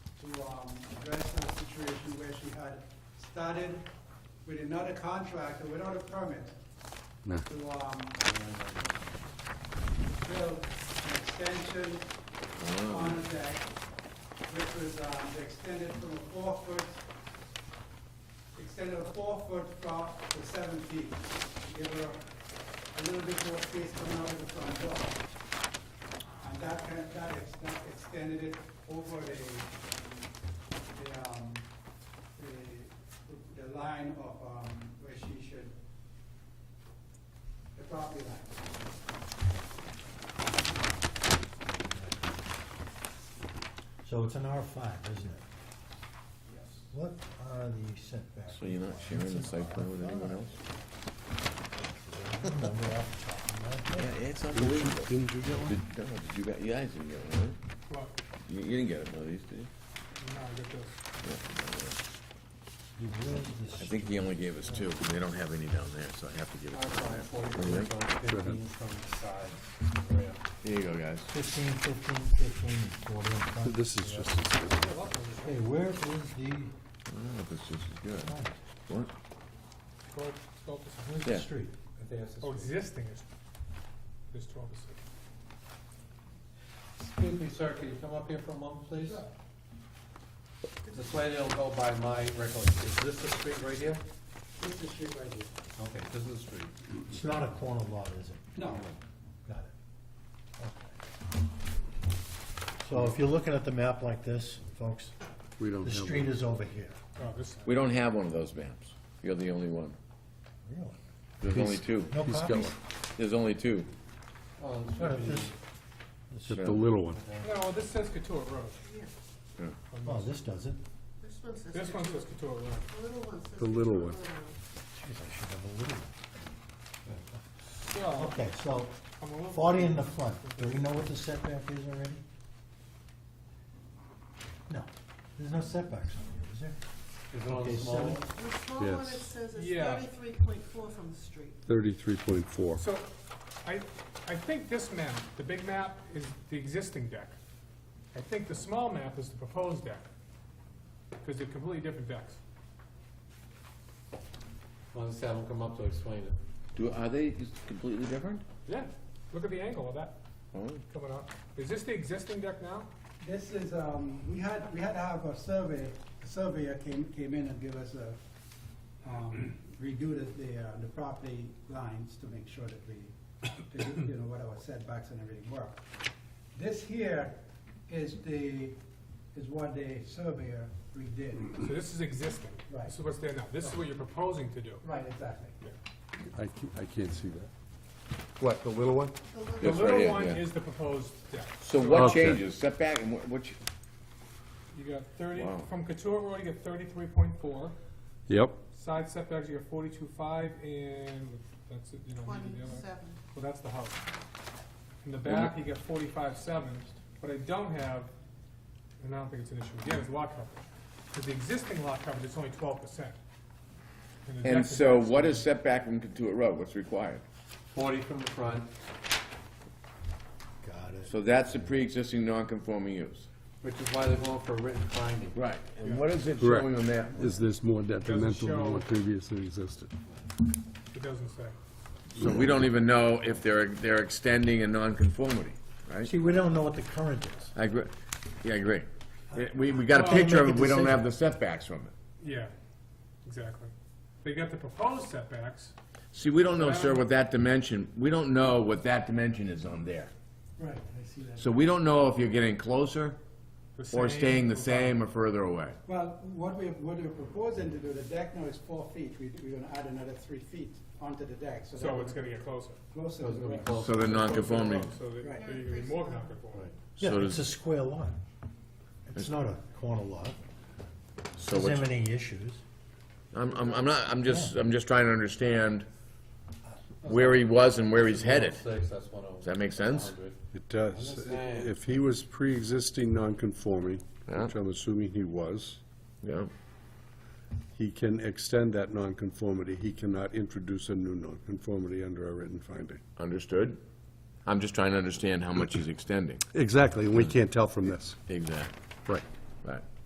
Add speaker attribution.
Speaker 1: um, addressing the situation where she had started with another contractor without a permit
Speaker 2: No.
Speaker 1: to, um, build an extension on the deck, which was, um, they extended from a four-foot, extended a four-foot drop to seven feet, to give her a little bit more space coming out of the front door. And that, kind of- that ex- that extended it over the, the, um, the, the line of, um, where she should, the property line.
Speaker 3: So it's an R five, isn't it? What are the setbacks?
Speaker 4: So you're not sharing the site plan with anyone else?
Speaker 3: I don't remember off the top of my head.
Speaker 4: Yeah, it's unbelievable.
Speaker 2: Didn't you get one?
Speaker 4: Did, no, did you, got- you guys didn't get one, right?
Speaker 5: Well,
Speaker 4: You, you didn't get one of these, did you?
Speaker 5: now I get this.
Speaker 3: You raised this-
Speaker 4: I think he only gave us two, because they don't have any down there, so I have to give it to him.
Speaker 6: Fifteen from the side, right up.
Speaker 4: There you go, guys.
Speaker 3: 15, 15, 15, and 40 in front.
Speaker 2: This is just,
Speaker 3: Okay, where is the,
Speaker 4: I don't know if it's just as Oh, good. What?
Speaker 5: Twelve, twelve percent.
Speaker 3: where's the
Speaker 4: Yeah.
Speaker 3: street?
Speaker 6: I think that's the
Speaker 5: Oh,
Speaker 6: street.
Speaker 5: existing is, is twelve percent.
Speaker 6: Excuse me, sir, can you come up here for a moment, please? This way they'll go by my record. Is this the street right here?
Speaker 1: This is the street right here.
Speaker 6: Okay, this is the street.
Speaker 3: It's not a corner lot, is it?
Speaker 1: No,
Speaker 3: Got it. Okay. So if you're looking at the map like this, folks,
Speaker 2: we don't
Speaker 3: the
Speaker 2: have
Speaker 3: street
Speaker 2: one.
Speaker 3: is over here.
Speaker 5: Oh, this,
Speaker 4: We don't have one of those maps. You're the only one.
Speaker 3: Really?
Speaker 4: There's only two.
Speaker 3: No
Speaker 2: He's got
Speaker 3: copies?
Speaker 2: one.
Speaker 4: There's only two.
Speaker 6: Oh,
Speaker 3: What
Speaker 6: this
Speaker 3: if
Speaker 6: is-
Speaker 3: this,
Speaker 2: Get the little one.
Speaker 5: no, this says Katua Road.
Speaker 4: Yeah.
Speaker 5: On
Speaker 3: oh,
Speaker 5: this.
Speaker 3: this doesn't.
Speaker 7: This one says.
Speaker 5: This one says Katua Road.
Speaker 7: The little one says.
Speaker 2: The little one.
Speaker 3: Jeez, I should have a little.
Speaker 5: Well,
Speaker 3: Okay, so
Speaker 5: I'm a little.
Speaker 3: 40 in the front. Do we know what the setback is already? No, there's no setbacks on here, is there?
Speaker 6: Is it on
Speaker 3: Okay,
Speaker 6: the small?
Speaker 3: seven.
Speaker 6: one?
Speaker 7: The small one, it
Speaker 2: Yes.
Speaker 7: says is
Speaker 5: Yeah.
Speaker 7: thirty-three point four from the street.
Speaker 2: Thirty-three point four.
Speaker 5: So, I, I think this map, the big map, is the existing deck. I think the small map is the proposed deck, because they're completely different decks.
Speaker 6: Why don't you have them come up to explain it?
Speaker 4: Do, are they just completely different?
Speaker 5: Yeah, look at the angle of that
Speaker 4: Oh,
Speaker 5: coming up. Is this the existing deck now?
Speaker 1: this is, um, we had, we had to have a survey, a surveyor came, came in and give us a, um, redo the, the, uh, the property lines to make sure that we, that, you know, what our setbacks and everything work. This here is the, is what the surveyor redid.
Speaker 5: So this is existing.
Speaker 1: Right.
Speaker 5: This is what's there now. This is what you're proposing to do.
Speaker 1: Right, exactly.
Speaker 2: I can't, I can't see that. What, the little one?
Speaker 7: The little
Speaker 4: Yeah.
Speaker 5: The
Speaker 4: Yes, right
Speaker 5: little
Speaker 4: here,
Speaker 5: one
Speaker 4: yeah.
Speaker 5: is the proposed deck.
Speaker 4: So what
Speaker 2: Okay.
Speaker 4: changes? Setback and what, what, ch-
Speaker 5: You got thirty,
Speaker 4: Wow.
Speaker 5: from Couture Road, you get thirty-three point four.
Speaker 2: Yep,
Speaker 5: Side setbacks, you got forty-two five, and that's it, you don't need the other.
Speaker 7: Twenty-seven.
Speaker 5: Well, that's the house. In the back, you get forty-five seven. What I don't have, and I don't think it's an issue again, is lot coverage. Because the existing lot coverage is only twelve percent.
Speaker 4: and so what is setback from Kentuit Road? What's required?
Speaker 6: Forty from the front,
Speaker 3: Got it.
Speaker 4: So that's a pre-existing non-conforming use.
Speaker 6: which is why they're going for a written finding.
Speaker 4: Right, and what is it
Speaker 2: Correct.
Speaker 4: showing on that?
Speaker 2: is this more detrimental than what
Speaker 5: show-
Speaker 2: previously existed?
Speaker 5: It doesn't say.
Speaker 4: So we don't even know if they're, they're extending a nonconformity, right?
Speaker 3: See, we don't know what the current is.
Speaker 4: I agree, yeah, I agree. It- We, we got a
Speaker 5: Well,
Speaker 4: picture of
Speaker 3: make
Speaker 4: it,
Speaker 3: a
Speaker 4: we don't
Speaker 3: decision.
Speaker 4: have the setbacks from it.
Speaker 5: Yeah, exactly. They got the proposed setbacks,
Speaker 4: See, we don't know, sir, what that dimension, we don't know what that dimension is on there.
Speaker 1: Right, I see that.
Speaker 4: So we don't know if you're getting closer
Speaker 5: the same.
Speaker 4: or staying the same or further away.
Speaker 1: Well, what we, what we're proposing to do, the deck now is four feet, we, we're gonna add another three feet onto the deck, so.
Speaker 5: So
Speaker 1: that
Speaker 5: it's gonna get closer.
Speaker 1: Closer.
Speaker 6: So it's gonna be close.
Speaker 4: So the nonconformity,
Speaker 5: So that-
Speaker 1: Right.
Speaker 5: that you're gonna be more non-conforming.
Speaker 3: Yeah,
Speaker 4: so
Speaker 3: it's a
Speaker 4: does,
Speaker 3: square lot. It's not a corner lot.
Speaker 4: so
Speaker 3: Doesn't have
Speaker 4: what's,
Speaker 3: any issues.
Speaker 4: I'm, I'm, I'm not, I'm just, I'm just trying to understand where he was and where he's headed.
Speaker 6: Six, that's one oh.
Speaker 4: Does that make sense?
Speaker 2: It
Speaker 6: I'm
Speaker 2: does.
Speaker 6: just saying.
Speaker 2: If he was pre-existing non-conforming,
Speaker 4: Yeah.
Speaker 2: which I'm assuming he was,
Speaker 4: Yeah.
Speaker 2: he can extend that nonconformity. He cannot introduce a new nonconformity under a written finding.
Speaker 4: Understood. I'm just trying to understand how much he's extending.
Speaker 2: Exactly, and we can't tell from this.
Speaker 4: Exactly.
Speaker 2: Right.
Speaker 4: Right.